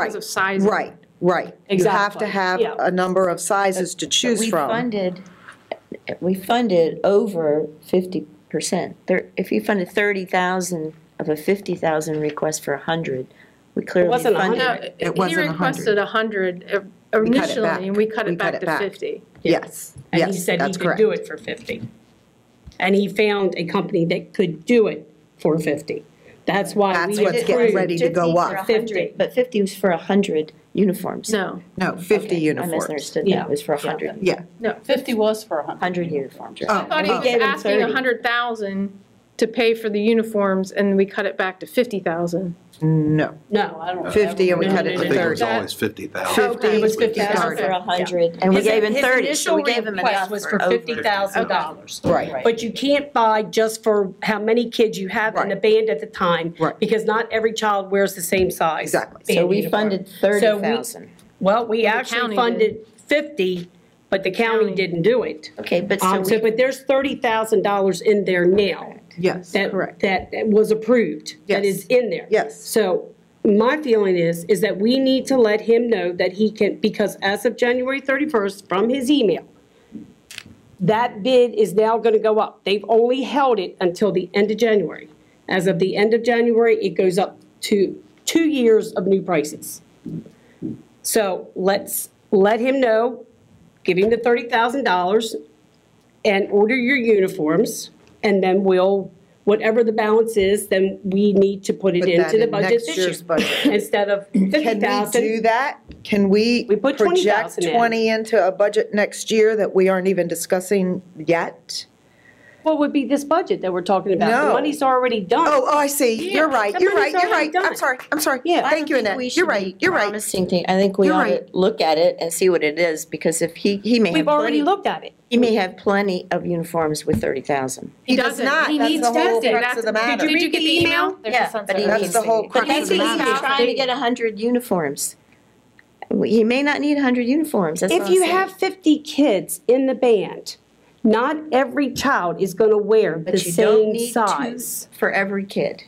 because Right, of size. Right, right. You have to Exactly, have yeah. a number of sizes to choose We from. funded, we funded over fifty percent. There, if you funded thirty thousand of a fifty thousand request for a hundred, we It clearly wasn't a funded. No, hundred. he wasn't a hundred. requested 100 cut it initially, back. and we cut We it cut back it to back. 50. Yes, And he yes, said he that's could correct. do it for 50. And he found a company that could do it for 50. That's why That's we what's getting approved. ready to go 50 for up. 100, 50. But fifty was for a hundred uniforms. No, No, 50 Okay, I uniforms. misunderstood that, Yeah. it was for a hundred, Yeah. no. Fifty was for a hundred. hundred uniforms. Oh, I thought he oh. was gave him asking 30. 100,000 to pay for the uniforms, and we cut it back to 50,000. No, No, No, I don't. 50 and we cut remember. it No, to no, I no, no. think it was 30. always 50,000. 50 It was was what we 50,000. For started. a hundred, and we His- gave him his thirty, so initial we gave him request enough was for for over. fifty thousand dollars. Right, But you can't buy just for how many kids you have in the Right. band at the time. Right. Because not every child wears the same size. Exactly. band So we uniform. funded thirty thousand. Well, we county actually did. funded fifty, but the county County. didn't do it. Okay, but so Um, so, we, but there's thirty thousand dollars in there now. yes, that, correct. that that was approved, that Yes. is in there. Yes. So my feeling is, is that we need to let him know that he can, because as of January 31st, from his email, that bid is now going to go up. They've only held it until the end of January. As of the end of January, it goes up to two years of new prices. So let's let him know, give him the $30,000, and order your uniforms, and then we'll, whatever the balance is, then we need to put it Put that into the in budget next this year's year. budget. Instead of fifty Can we do thousand. that? Can we We put project 20,000 in. 20 into a budget next year that we aren't even discussing yet? What would be this budget that we're talking about? No. The money's already done. Oh, oh, I see. You're Yeah, right, the you're right, money's you're already right. I'm done. sorry, I'm sorry. Yeah. Thank you, Annette. You're right, you're right. promising thing, I think we You're ought to right. look at it and see what it is, because if he, he may oh. have. We've already plenty- looked at it. He may have plenty of uniforms with thirty thousand. He does doesn't. not. He That's needs the whole testing. crux That's- of the matter. Did you get the email? There's a sense of- That's the whole crux But of he's the he's matter. trying to get a hundred uniforms. He may not need a hundred uniforms, that's what If I'm you saying. have fifty kids in the band, not every child is going to wear the But you don't same need size. two for every kid.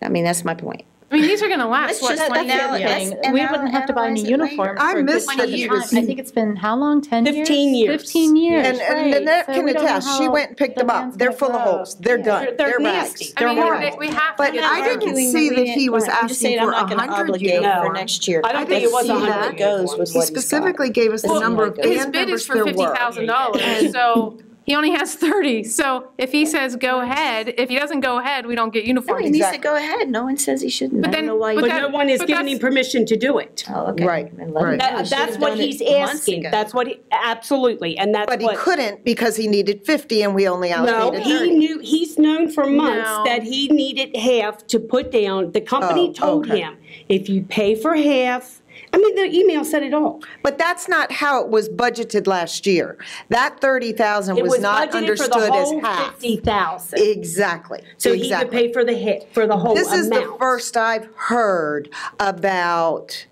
I mean, that's my point. I mean, these are going to last, Let's what, just 20 let years? them- let's- And we I'll wouldn't have to buy any analyze it later. uniform. I for a good missed 20 the years. years. I think it's been, how long, 10 years? 15 years. 15 years, And, and right. Nanette So can we don't know attest, she how went and picked them up. demand's They're gonna full of grow. holes. They're done. They're- they're They're nasty. rags. I They're mean, horrible. we- we have to But get I the didn't see that he was asking for a hundred for uniforms. next year. I don't I think it was See 100 where it goes uniforms. with He what he's got. specifically gave us Oh the Well, number of His band bid is members for there were. $50,000, so he only has 30. So if he says, go ahead, if he doesn't go ahead, we don't get No, uniforms. he needs to go ahead. No one says he shouldn't. But I then- don't know why. you- But that- no one is but giving that's- him permission to do it. Oh, okay. Right, Then let him right. know. That- He should've That's what done it he's months asking. ago. That's what, he- absolutely, and that's But he what. couldn't because he needed fifty and we only No, allocated he thirty. knew, he's known for No. months that he needed half to put down. The Oh, company told okay. him, if you pay for half, I mean, the email said it all. But that's not how it was budgeted last year. That thirty thousand It was not budgeted for the understood as whole half. Fifty thousand, Exactly, so he could exactly. pay for the hit, for the whole amount. This is the first I've heard about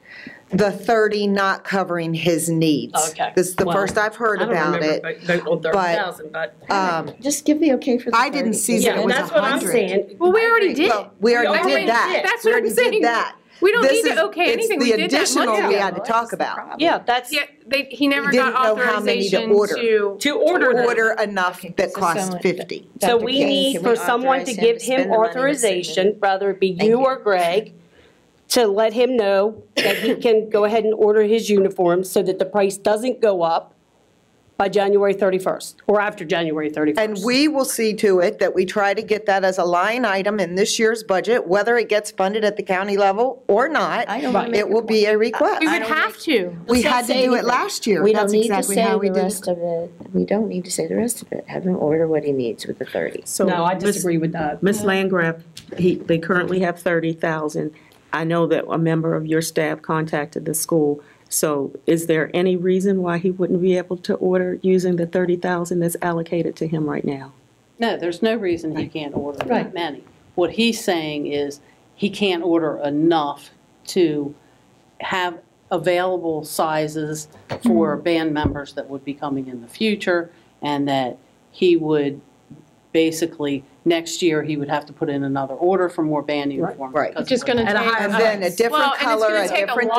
the thirty not covering his needs. Okay. This is the Well, first I've heard about it. I don't remember, but, but, but. Um, Just give the okay for the I didn't 30. see that Yeah, it was that's what I'm 100. saying. Well, we already did. Well, we already already did that. did. That's We what I'm already did saying. that. We don't This need to is- okay it's anything. We did that the months additional we ago. had to talk about. Yeah, that's, Yeah, they, he never He didn't got know how many to authorization order. to. to order them. Order enough that so costs someone- fifty. So Dr. we King, need can for we someone to authorize give spend the money in him a certain- authorization, whether it be Thank you you. or Greg, to let him know that he can go ahead and order his uniforms so that the price doesn't go up by January 31st, or after January 31st. And we will see to it that we try to get that as a line item in this year's budget, whether it gets funded at the county level or not. I don't wanna make It will be a request. We would have to. We Let's not had to do say it anything. last year. We That's don't need to exactly say how we the did it. rest of it. We don't need to say the rest of it. Have him order what he needs with the thirty. No, I Miss- disagree with that. Miss Landgraf, he, they currently have thirty thousand. I know that a member of your staff contacted the school. So is there any reason why he wouldn't be able to order using the thirty thousand that's allocated to him right now? No, there's no reason he can't order that many. What he's saying is, he can't order enough to have available sizes Mm-hmm. for band members that would be coming in the future, and that he would, basically, next year, he would have to put in another order for more band uniforms. right. because of Just gonna the- take. And then a different Well, and it's color, gonna a take different